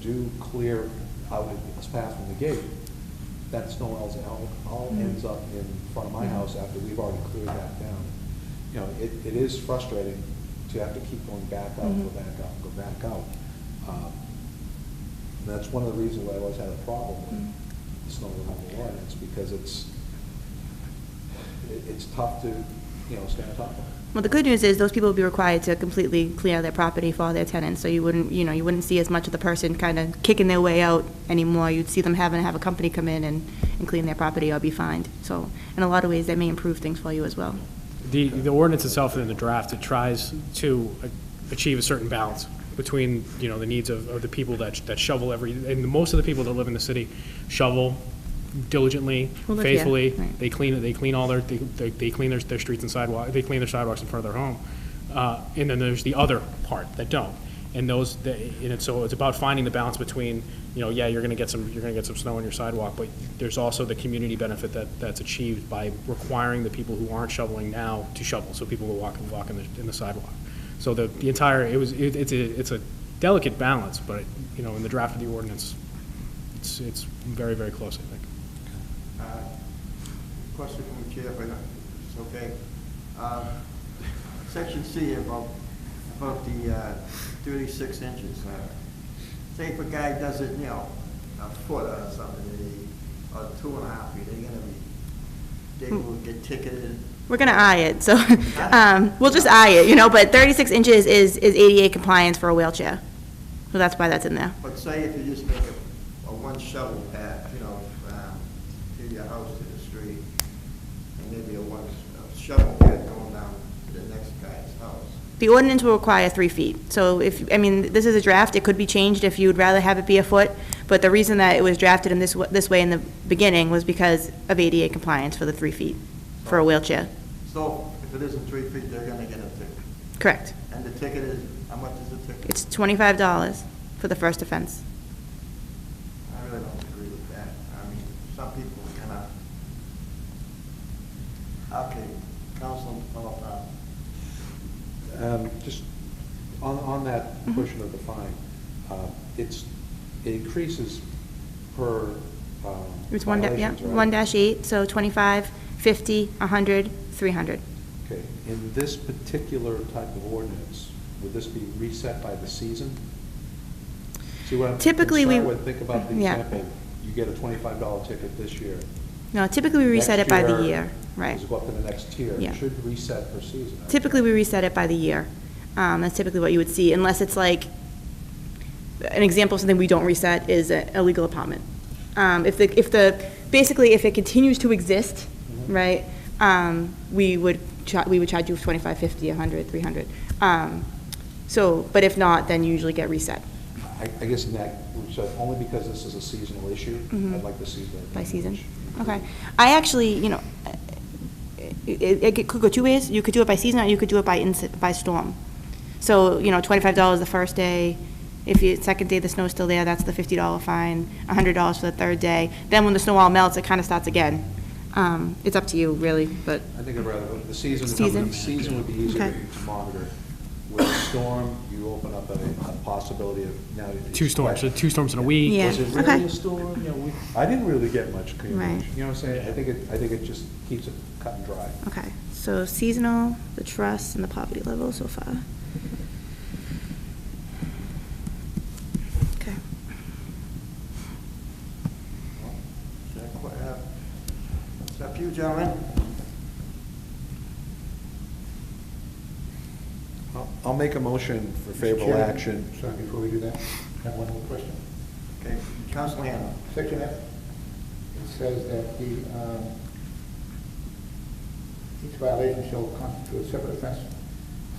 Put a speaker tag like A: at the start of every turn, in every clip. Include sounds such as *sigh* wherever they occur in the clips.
A: do clear out at this path from the gate, that snow all, all- all ends up in front of my house after we've already cleared that down. You know, it, it is frustrating to have to keep going back out, go
B: Mhm.
A: back out, go back out. Um, And that's one of the reasons why I always had a problem
B: Mhm.
A: with the snow removal ordinance, because it's, it- it's tough to, you know, stay on top of it.
B: Well, the good news is those people will be required to completely clear their property for all their tenants, so you wouldn't, you know, you wouldn't see as much of the person kind of kicking their way out anymore. You'd see them having to have a company come in and, and clean their property or be fined. So, in a lot of ways, that may improve things for you as well.
C: The, the ordinance itself in the draft, it tries to achieve a certain balance between, you know, the needs of, of the people that, that shovel every, and most of the people that live in the city shovel diligently,
B: Well, look, yeah,
C: faithfully.
B: right.
C: They clean, they clean all their, they, they they clean their, their streets and sidewalk, they clean their sidewalks in front of their home. Uh, and then there's the other part that don't. And those, that- and it's, so it's about finding the balance between, you know, yeah, you're gonna get some, you're gonna get some snow on your sidewalk, but there's also the community benefit that, that's achieved by requiring the people who aren't shoveling now to shovel, so people will walk and walk in the, in the sidewalk. So the, the entire, it was, it, it's a, it's a delicate balance, but, you know, in the draft of the ordinance, it's, it's very, very close, I think.
D: Uh, Question from the chair, but it's okay. Um, Section C about, about the uh, thirty-six inches. uh, Say if a guy does it, you know, a foot or something, they- or two and a half feet, they're gonna be, they will get ticketed.
B: We're gonna eye it, so, *laughs* um, we'll just eye it, you know, but thirty-six inches is, is ADA compliance for a wheelchair. So that's why that's in there.
D: But say if you just make a, a one shovel path, you know, um, to your house, to the street, and maybe a one a shovel path going down to the next guy's house.
B: The ordinance will require three feet. So if, I mean, this is a draft, it could be changed if you would rather have it be a foot, but the reason that it was drafted in this, wa- this way in the beginning was because of ADA compliance for the three feet for a wheelchair.
D: So if it isn't three feet, they're gonna get a ticket.
B: Correct.
D: And the ticket is, how much is the ticket?
B: It's twenty-five dollars for the first offense.
D: I really don't agree with that. I mean, some people cannot. Okay, Councilman Philip,
A: Um, Just on, on that
B: Mhm.
A: portion of the fine, uh, it's, it increases per um,
B: It's one, da- yeah,
A: violations, right?
B: one dash eight, so twenty-five, fifty, a hundred, three hundred.
A: Okay, in this particular type of ordinance, would this be reset by the season? See what I'm
B: Typically, we-
A: concerned with, think about the
B: Yeah.
A: example, you get a twenty-five dollar ticket this year.
B: No, typically we reset
A: Next
B: it by the year, right.
A: It's go up to the next tier. It
B: Yeah.
A: Should reset per season. I would
B: Typically,
A: think.
B: we reset it by the year. Um, That's typically what you would see, unless it's like, an example of something we don't reset is an illegal apartment. Um, If the, if the, basically, if it continues to exist,
A: Mhm.
B: right, um, we would, cha- we would charge you 25, 50, 100, 300. Um, So, but if not, then you usually get reset
A: I, I guess in that, so only because this is a seasonal issue,
B: Mhm.
A: I'd like to see that.
B: by season.
A: language.
B: Okay. I actually, you know, it, it could go two ways. You could do it by season, or you could do it by inci- by storm. So, you know, twenty-five dollars the first day. If you, second day the snow's still there, that's the fifty dollar fine, a hundred dollars for the third day. Then when the snow all melts, it kind of starts again. Um, it's up to you, really, but,
A: I think I'd rather, the season,
B: Season.
A: the season would be easier
B: Okay.
A: to monitor. With a storm, you open up a a possibility of now. it's-
C: Two storms, so two storms in a week.
B: Yeah,
A: Was it
B: okay.
A: really a storm? You know, we- I didn't really get much coverage.
B: Right.
A: You know what I'm saying? I think it, I think it just keeps it cut and dry.
B: okay. So seasonal, the trust, and the poverty level so far. Okay.
D: uh, it's up to you, gentlemen.
A: I'll- I'll make a motion for
E: Mr.
A: favorable
E: Chairman,
A: action.
E: Sorry, before we do that, I have one more question.
D: Okay, Councilman Hanlon.
E: Section F, it says that the, um, each violation shall constitute a separate offense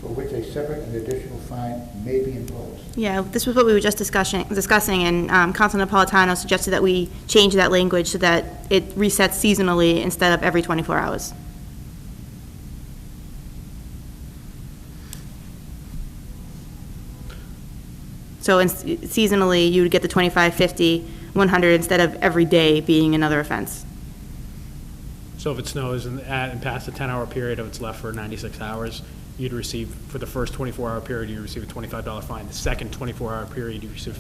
E: for which a separate and additional fine may be imposed.
B: Yeah, this was what we were just discussing, discussing, and um, Council Napolitano suggested that we change that language so that it resets seasonally instead of every 24 hours. So in- seasonally, you would get the 25, 50, 100 instead of every day being another offense.
C: So if it snows and at and past the 10-hour period of it's left for 96 hours, you'd receive, for the first 24-hour period, you receive a $25 fine. The second 24-hour period, you receive a